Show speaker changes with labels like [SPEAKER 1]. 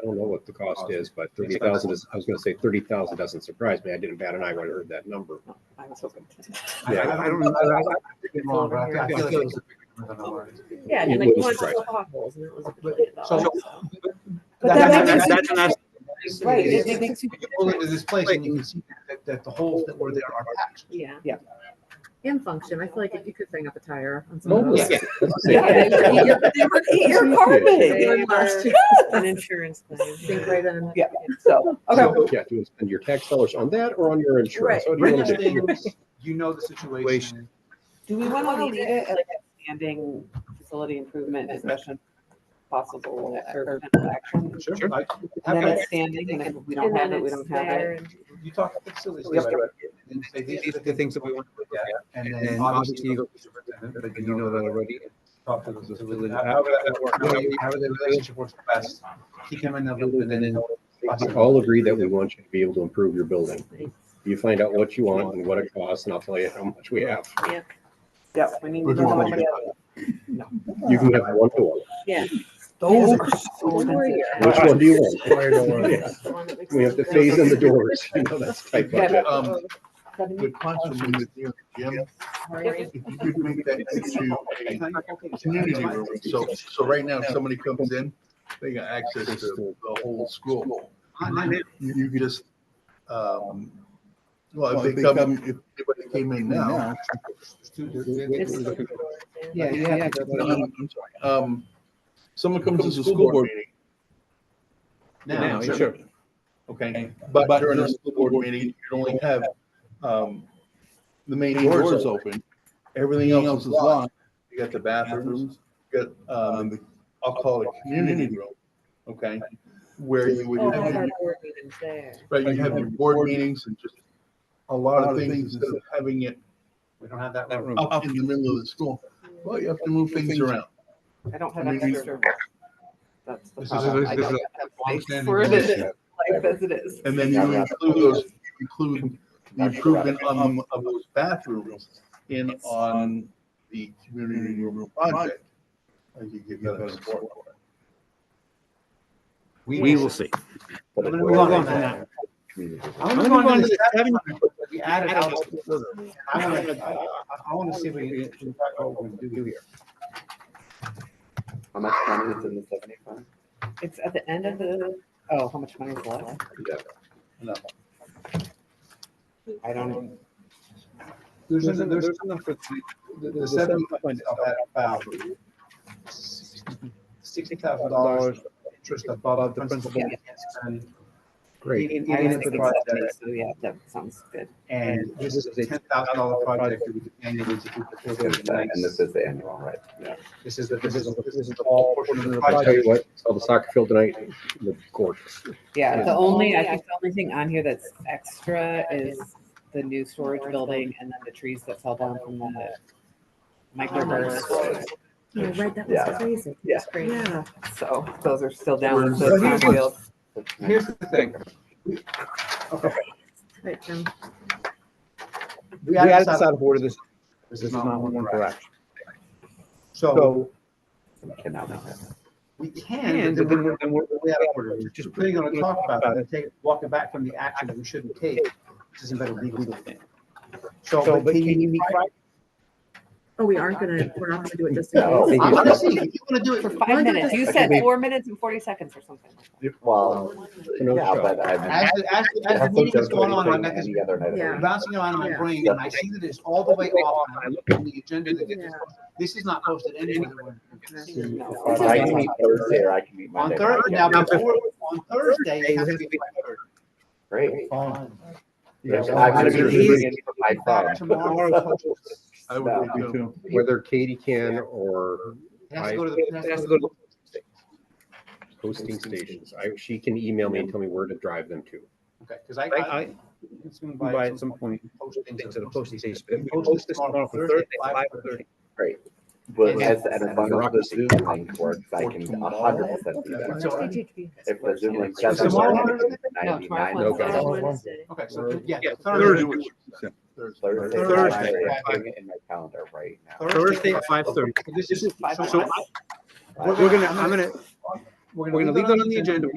[SPEAKER 1] I don't know what the cost is, but thirty thousand is, I was gonna say thirty thousand doesn't surprise me. I didn't bat an eye when I heard that number.
[SPEAKER 2] No, I was hoping.
[SPEAKER 3] I
[SPEAKER 1] Yeah.
[SPEAKER 3] I- I don't, I, I, I could be wrong, but I I feel like it was a bigger number than I wanted.
[SPEAKER 2] Yeah, and
[SPEAKER 1] It
[SPEAKER 2] like
[SPEAKER 1] was
[SPEAKER 2] one
[SPEAKER 1] right.
[SPEAKER 2] of the potholes, and it was a
[SPEAKER 3] But-
[SPEAKER 2] billion
[SPEAKER 3] So.
[SPEAKER 2] dollars.
[SPEAKER 4] But that
[SPEAKER 3] that-
[SPEAKER 4] makes-
[SPEAKER 3] that- that's-
[SPEAKER 4] Right, it-
[SPEAKER 3] it's-
[SPEAKER 4] it makes you-
[SPEAKER 3] You pull into this place and you can see that, that the holes that were there are patched.
[SPEAKER 2] Yeah.
[SPEAKER 4] Yeah.
[SPEAKER 5] And function, I feel like if you could hang up a tire on some of
[SPEAKER 1] Mobile.
[SPEAKER 5] those.
[SPEAKER 3] Yeah.
[SPEAKER 2] Yeah.
[SPEAKER 5] Oh, Yeah.
[SPEAKER 2] You're- you're- you're carpeting.
[SPEAKER 5] They were-
[SPEAKER 2] An insurance claim.
[SPEAKER 5] Sink right in.
[SPEAKER 4] Yeah. So, okay,
[SPEAKER 1] So, Yeah, do you spend your tax dollars on that or on your insurance? What do you
[SPEAKER 3] Written
[SPEAKER 1] wanna do?
[SPEAKER 3] things, you know the situation.
[SPEAKER 4] do we want to leave it as
[SPEAKER 2] Standing facility improvement discussion possible
[SPEAKER 4] or
[SPEAKER 2] or potential action.
[SPEAKER 3] Sure. I-
[SPEAKER 2] And then
[SPEAKER 3] I-
[SPEAKER 2] it's standing, and if we don't have it, we don't have it.
[SPEAKER 3] You talk to the facilities.
[SPEAKER 6] Yep.
[SPEAKER 3] director and say,
[SPEAKER 6] These are the things that we want to look at.
[SPEAKER 3] And
[SPEAKER 6] And
[SPEAKER 3] then
[SPEAKER 6] then
[SPEAKER 3] obviously you go
[SPEAKER 6] obviously
[SPEAKER 3] to the superintendent,
[SPEAKER 6] But you know that already.
[SPEAKER 3] talk to the facility.
[SPEAKER 6] Facility.
[SPEAKER 3] However that works, however you- however the relationship works best, keep them in the loop and then.
[SPEAKER 1] We all agree that we want you to be able to improve your building. You find out what you want and what it costs, and I'll tell you how much we have.
[SPEAKER 2] Yep, we need to
[SPEAKER 3] We're doing
[SPEAKER 2] know.
[SPEAKER 1] You can have one to one.
[SPEAKER 2] Yeah.
[SPEAKER 4] those are
[SPEAKER 2] Those
[SPEAKER 4] so
[SPEAKER 2] were
[SPEAKER 4] expensive.
[SPEAKER 2] your-
[SPEAKER 1] Which one do you want? Yeah.
[SPEAKER 5] The one that makes
[SPEAKER 1] We have to phase in the doors. You know, that's tight budget.
[SPEAKER 6] Um,
[SPEAKER 2] Seventy-
[SPEAKER 6] good question, Ms. Neal, Jim,
[SPEAKER 5] Sorry.
[SPEAKER 6] if you could make that into a community room. So, so right now, if somebody comes in, they got access to the whole school. You, you could just, um, well, if they come, if anybody came in now.
[SPEAKER 4] Yeah, you have to
[SPEAKER 6] No,
[SPEAKER 4] go.
[SPEAKER 6] I'm- I'm sorry. Um, someone comes to the school board meeting.
[SPEAKER 3] Now, sure.
[SPEAKER 6] Okay, but during the school board meeting, you only have, um, the main doors open. Everything else is locked. You got the bathrooms, you got, um, the- I'll call it community room, okay? Where you would,
[SPEAKER 2] Oh, all of our
[SPEAKER 6] right,
[SPEAKER 2] board meetings there.
[SPEAKER 6] you have your board meetings and just a lot of things instead of having it
[SPEAKER 3] We don't have that. room. Oh,
[SPEAKER 6] up in the middle of the school. Well, you have to move things around.
[SPEAKER 2] I don't have
[SPEAKER 6] I mean, we-
[SPEAKER 2] extra room. That's the
[SPEAKER 3] This is-
[SPEAKER 2] problem.
[SPEAKER 3] this
[SPEAKER 2] I
[SPEAKER 3] is
[SPEAKER 2] don't
[SPEAKER 3] a
[SPEAKER 2] have space
[SPEAKER 3] longstanding
[SPEAKER 2] for it in
[SPEAKER 3] relationship.
[SPEAKER 2] life as it is.
[SPEAKER 6] And then you include those, you include the improvement on the, of those bathrooms in on the community room project. I could give you that support.
[SPEAKER 3] We will see. I'm gonna move on from that. I'm gonna move on to the seven that we added out. I wanna, I- I- I wanna see if we can, can talk about what we do here.
[SPEAKER 7] How much money is in the seventy fund?
[SPEAKER 2] It's at the end of the, oh, how much money is left? I don't know.
[SPEAKER 3] Um, There's, an- there's enough for three, the, the seven fund of that about sixty thousand dollars interest above the principal.
[SPEAKER 2] Yeah.
[SPEAKER 3] And
[SPEAKER 1] Great.
[SPEAKER 3] Even-
[SPEAKER 2] I
[SPEAKER 3] even
[SPEAKER 2] don't
[SPEAKER 3] if the
[SPEAKER 2] think it's
[SPEAKER 3] project-
[SPEAKER 2] seventy, so yeah, that sounds good.
[SPEAKER 3] And this is a ten thousand dollar project that we could annually to do the
[SPEAKER 7] And
[SPEAKER 3] facility.
[SPEAKER 7] this is the annual, right? Yeah.
[SPEAKER 3] This is the, this is, the- this is the all portion of the
[SPEAKER 1] I tell you
[SPEAKER 3] project.
[SPEAKER 1] what, saw the soccer field tonight, looked gorgeous.
[SPEAKER 2] Yeah,
[SPEAKER 1] Yeah.
[SPEAKER 2] the only, I think the only thing on here that's extra is the new storage building and then the trees that fell down from the microburst.
[SPEAKER 5] Yeah, right, that was
[SPEAKER 7] Yeah.
[SPEAKER 5] crazy.
[SPEAKER 2] Yeah.
[SPEAKER 5] Yeah.
[SPEAKER 2] So those are still down. so
[SPEAKER 3] But
[SPEAKER 2] it's not
[SPEAKER 3] here's-
[SPEAKER 2] real.
[SPEAKER 3] Here's the thing,
[SPEAKER 5] Right, Jim.
[SPEAKER 3] we added this out,
[SPEAKER 6] of order, this,
[SPEAKER 3] this is not one
[SPEAKER 6] for
[SPEAKER 3] correct. So
[SPEAKER 7] Cannot know.
[SPEAKER 3] we can, but then we're, then we're way out of order. We're Just putting on a talk about it, and take, walk it back from the action that we shouldn't take, this isn't better legal. So, but can you meet Friday?
[SPEAKER 5] Oh, we aren't gonna, we're not gonna do it just
[SPEAKER 1] No.
[SPEAKER 5] in case.
[SPEAKER 3] I wanna see, if you wanna do it.
[SPEAKER 2] For
[SPEAKER 5] Why
[SPEAKER 2] five
[SPEAKER 5] not
[SPEAKER 2] minutes,
[SPEAKER 5] just-
[SPEAKER 2] you
[SPEAKER 7] I
[SPEAKER 2] said
[SPEAKER 7] think-
[SPEAKER 2] four minutes and forty seconds or something. like that.
[SPEAKER 7] Well,
[SPEAKER 1] No
[SPEAKER 7] yeah,
[SPEAKER 1] shot.
[SPEAKER 7] but I.
[SPEAKER 3] As, the- as, the- as the meeting is going on, I got this
[SPEAKER 7] Any other night of the
[SPEAKER 5] Yeah.
[SPEAKER 7] week.
[SPEAKER 3] bouncing around in my
[SPEAKER 5] Yeah.
[SPEAKER 3] brain, and I see that it's all the way off, and I look at the agenda that gets, this is not posted anywhere.
[SPEAKER 2] No.
[SPEAKER 7] Well, I can meet Thursday or I can meet
[SPEAKER 3] On
[SPEAKER 7] Monday.
[SPEAKER 3] Thursday, now,
[SPEAKER 7] Yeah.
[SPEAKER 3] before, on Thursday, it has to be by Thursday.
[SPEAKER 7] Great.
[SPEAKER 1] Yeah,
[SPEAKER 7] And I'm gonna be
[SPEAKER 1] well,
[SPEAKER 7] leaving for my
[SPEAKER 3] Back
[SPEAKER 7] phone.
[SPEAKER 3] Tomorrow,
[SPEAKER 6] I
[SPEAKER 7] No.
[SPEAKER 6] would agree too.
[SPEAKER 1] Whether Katie can or
[SPEAKER 3] it has to go to the, it has to go to
[SPEAKER 6] Well,
[SPEAKER 1] hosting stations, I, she can email me and tell me where to drive them to.
[SPEAKER 3] Okay, because I,
[SPEAKER 8] I,
[SPEAKER 3] I.
[SPEAKER 8] I
[SPEAKER 3] it's gonna
[SPEAKER 8] buy at some point
[SPEAKER 3] Postings
[SPEAKER 8] things
[SPEAKER 3] to
[SPEAKER 8] at
[SPEAKER 3] the
[SPEAKER 8] a posting
[SPEAKER 3] posting
[SPEAKER 8] station.
[SPEAKER 3] station.
[SPEAKER 8] We post this tomorrow for Thursday, five thirty.
[SPEAKER 7] Well, as an abundance of Zoom link works, I can a hundred percent do that.
[SPEAKER 3] So,
[SPEAKER 5] Thursday, JT.
[SPEAKER 7] If the Zoom link
[SPEAKER 3] So
[SPEAKER 7] doesn't
[SPEAKER 3] tomorrow-
[SPEAKER 7] work, it's ninety-nine.
[SPEAKER 2] No,
[SPEAKER 1] tomorrow.
[SPEAKER 5] It's
[SPEAKER 7] percent.
[SPEAKER 5] on Wednesday.
[SPEAKER 3] Okay, so, yeah.
[SPEAKER 8] Yeah,
[SPEAKER 3] Thursday.
[SPEAKER 7] Thursday.
[SPEAKER 3] Thursday.
[SPEAKER 7] I'm putting it In my calendar right now.
[SPEAKER 8] Thursday at five thirty.
[SPEAKER 3] This is, so
[SPEAKER 2] Five
[SPEAKER 3] I,
[SPEAKER 8] So
[SPEAKER 2] minutes.
[SPEAKER 8] I- we're gonna, I'm gonna, we're gonna leave that on the agenda.